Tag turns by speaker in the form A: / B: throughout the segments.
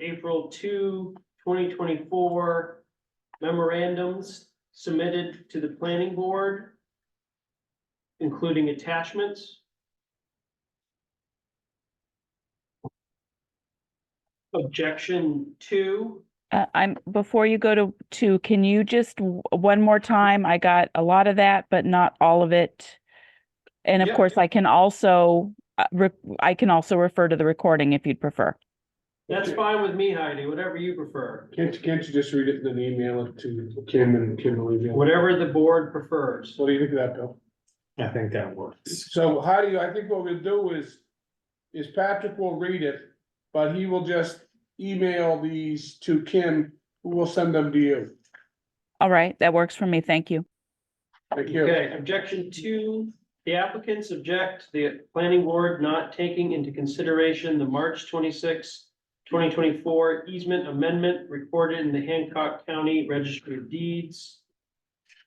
A: April 2, 2024 memorandums submitted to the planning board, including attachments. Objection two,
B: Uh, I'm, before you go to, to, can you just w- one more time? I got a lot of that, but not all of it. And of
A: Yeah.
B: course, I can also, uh, re- I can also refer to the recording if you'd prefer.
A: that's fine with me, Heidi, whatever you prefer,
C: Can't, can't you just read it and then email it to Kim and Kim will email? it?
A: whatever the board prefers.
C: What do you think of that, Bill?
D: I think that works.
C: So how do you, I think what we'll do is, is Patrick will read it, but he will just email these to Kim, who will send them to you.
B: All right, that works for me. Thank you.
C: Thank you.
A: Okay, objection two, the applicants object to the planning board not taking into consideration the March 26, twenty twenty-four easement amendment recorded in the Hancock County Registry of Deeds.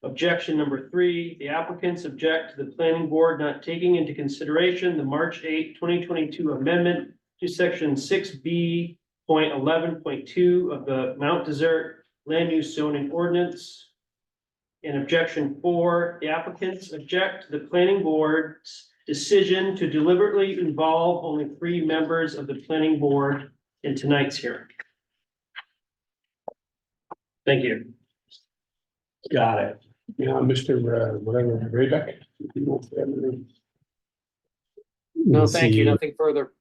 A: Objection number three, the applicants object to the planning board not taking into consideration the March 8, 2022 amendment to section six B point eleven point two of the Mount Desert Land Use Zoning Ordinance. In objection four, the applicants object to the planning board's decision to deliberately involve only three members of the planning board in tonight's hearing. Thank you.
D: Got it.
C: Yeah, Mr. uh, whatever, Raybeck.
E: No, thank you, nothing further.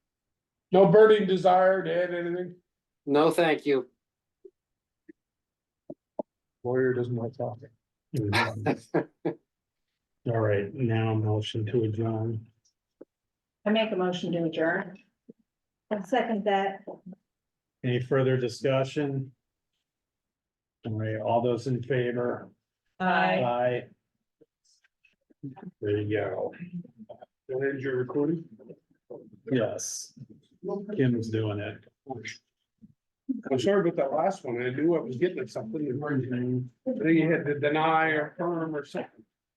C: No burning desire to add anything?
E: No, thank you.
C: Lawyer doesn't like talking.
D: All right, now motion to adjourn.
F: I make a motion to adjourn. I second that.
D: Any further discussion? All right, all those in favor?
F: Aye.
D: Aye. There you go.
C: That ends your recording?
D: Yes. Kim's doing it.
C: I'm sorry about that last one. I knew I was getting at something. I think you had to deny or affirm or something.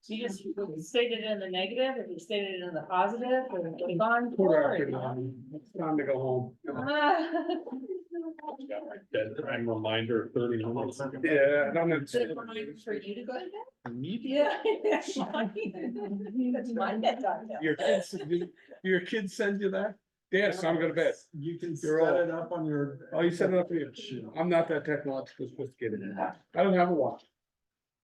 F: You just stated it in the negative, if you stated it in the positive, or it's on
C: Quarter after
F: forward.
C: nine. It's time to go home.
D: Time reminder thirty minutes.
C: Yeah, and I'm gonna-
F: Should have reminded for you to go to bed?
D: Immediate.
F: Yeah. That's my bedtime now.
C: Your kids, do your kids send you that? Yes, I'm gonna bet. Oh,
D: You can
C: You're all-
D: up on your.
C: Oh, you set it up for you. I'm not that technologically sophisticated. I don't have a watch.